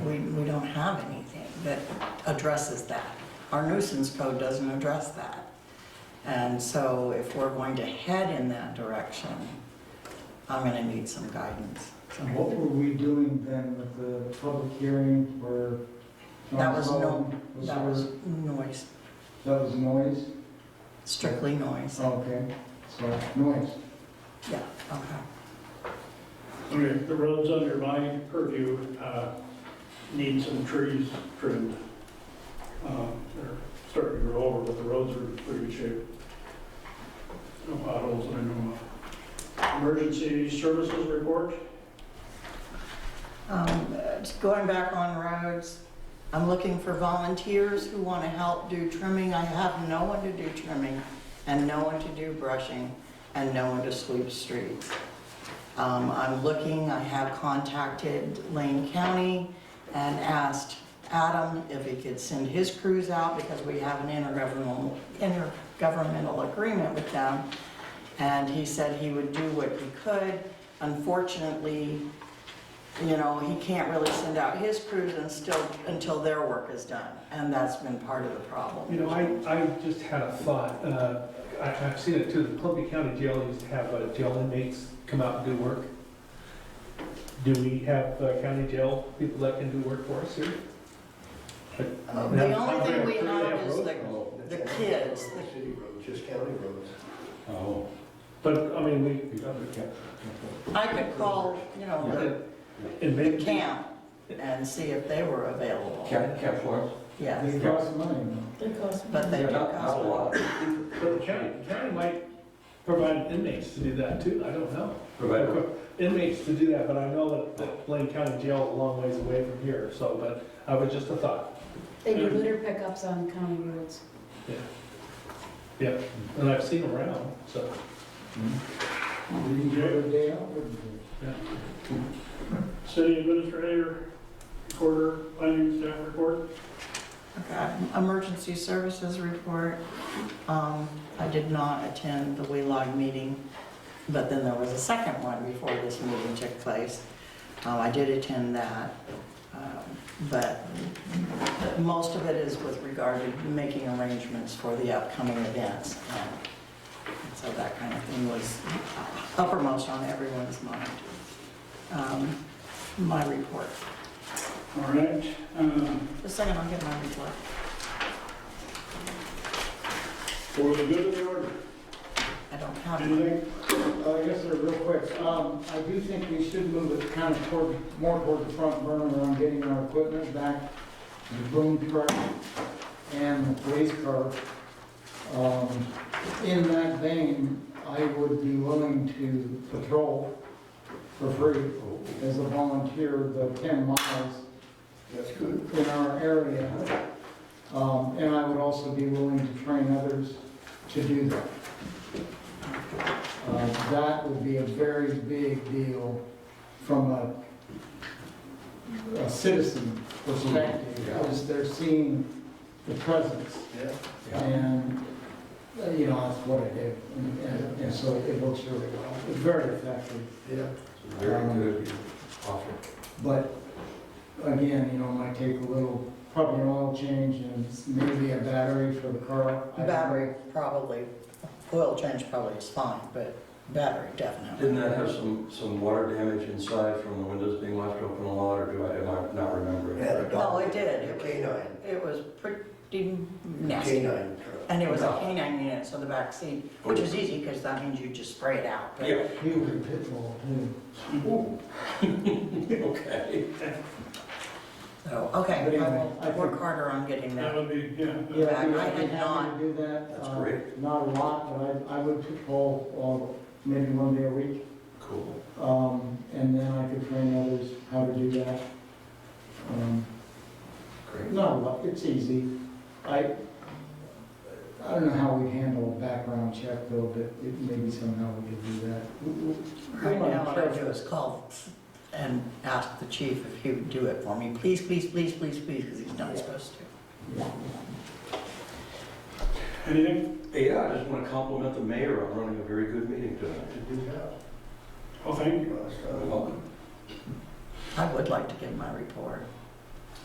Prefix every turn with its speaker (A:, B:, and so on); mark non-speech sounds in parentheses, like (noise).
A: have anything that addresses that. Our nuisance code doesn't address that. And so if we're going to head in that direction, I'm gonna need some guidance. So
B: And what were we doing then with the public hearing for?
A: That was no-
B: Was
A: That
B: there-
A: was noise,
B: That was noise?
A: strictly noise.
B: Okay, so noise.
A: Yeah, okay.
C: Okay, the roads under my purview uh, need some trees trimmed. Um, They're starting to grow over, but the roads are in pretty good shape. No potholes that I know of. Emergency services report?
A: Um, uh, just Going back on roads, I'm looking for volunteers who want to help do trimming. I have no one to do trimming and no one to do brushing and no one to sweep streets. Um, I'm looking, I have contacted Lane County and asked Adam if he could send his crews out because we have an intergovernmental, intergovernmental agreement with them. And he said he would do what he could. Unfortunately, you know, he can't really send out his crews and still, until their work is done, and that's been part of the problem.
D: You know, I, I just had a thought, uh, I, I've seen it too, the Columbia County Jail used to have uh, jail inmates come out and do work. Do we have uh, county jail people that can do work for us here?
A: Um, The only thing we have is the, the kids, the
E: City roads, just county roads.
D: Oh. But, I mean, we,
A: I could call, you know,
D: and
A: the
D: maybe,
A: camp and see if they were available.
F: Cap, cap what?
A: Yes,
B: They cost money. though.
A: but they
F: Yeah,
A: do
F: Not not a
A: cost.
F: lot,
D: but the county, the county might provide inmates to do that too, I don't know.
F: provided
D: Inmates to do that, but I know that- that Blaine County Jail is a long ways away from here, so, but I was just a thought.
G: They do litter pickups on county roads.
D: And I've seen them around, so.
B: We can go a day out, wouldn't we?
C: City administrator, recorder, planning staff report?
A: Okay, Emergency services report. Um, I did not attend the WELOG meeting, but then there was a second one before this meeting took place. Um, I did attend that, um, but most of it is with regard to making arrangements for the upcoming events. um, So that kind of thing was uppermost on everyone's mind. Um, My report.
C: All right. um,
A: Just a second, I'll get my report.
C: For the good of the order,
A: I don't have it.
C: anything?
B: Uh, I guess they're real quick. Um, I do think we should move it kind of toward, more toward the front burner on getting our equipment back, the boom truck and the police car. Um, in that vein, I would be willing to patrol for free as a volunteer, the ten miles
E: That's good.
B: in our area. Um, And I would also be willing to train others to do that. Uh, That would be a very big deal from a a citizen perspective, because they're seeing the presence.
E: Yeah.
B: And, uh, you know, that's what I do. And- And and so it works really well, It's very effective.
E: Yeah.
F: very good offer.
B: But again, you know, it might take a little, probably an oil change and maybe a battery for the car. I don't
A: Battery, probably, oil change probably is fine, but battery definitely.
F: Didn't that have some, some water damage inside from the windows being left open a lot, or do I, am I not remembering?
A: Well, it did, it was,
E: Canine,
A: it was pretty nasty.
E: canine truck.
A: And it was a canine unit, so the back seat, which is easy because that means you just spray it out. but-
F: Oh, Yeah,
B: know. He was a pit bull, too.
F: (laughs) okay.
A: So, okay,
B: But
A: I
B: anyway, I
A: will
B: think-
A: work harder on getting
C: That
A: that.
C: would be, yeah. that-
B: Yeah,
A: I
B: I'd be- I'd be
A: did
B: happy
A: not.
B: to do that.
F: That's
B: Uh,
F: great.
B: Not a lot, but I, I would patrol, well, maybe one day a week.
F: Cool.
B: Um, and then I could train others how to do that. Um,
F: Great.
B: Not a lot, it's easy. I, I don't know how we handle a background check though, but it- maybe somehow we could do that. We- we-
A: Right now, what I do is call and ask the chief if he would do it for me. Please, please, please, please, please, because he's not supposed to.
C: Anything?
F: Yeah, I just want to compliment the mayor on running a very good meeting tonight.
E: Good job.
C: Oh, thank you.
E: Well, it's, uh,
F: Welcome.
A: I would like to give my report.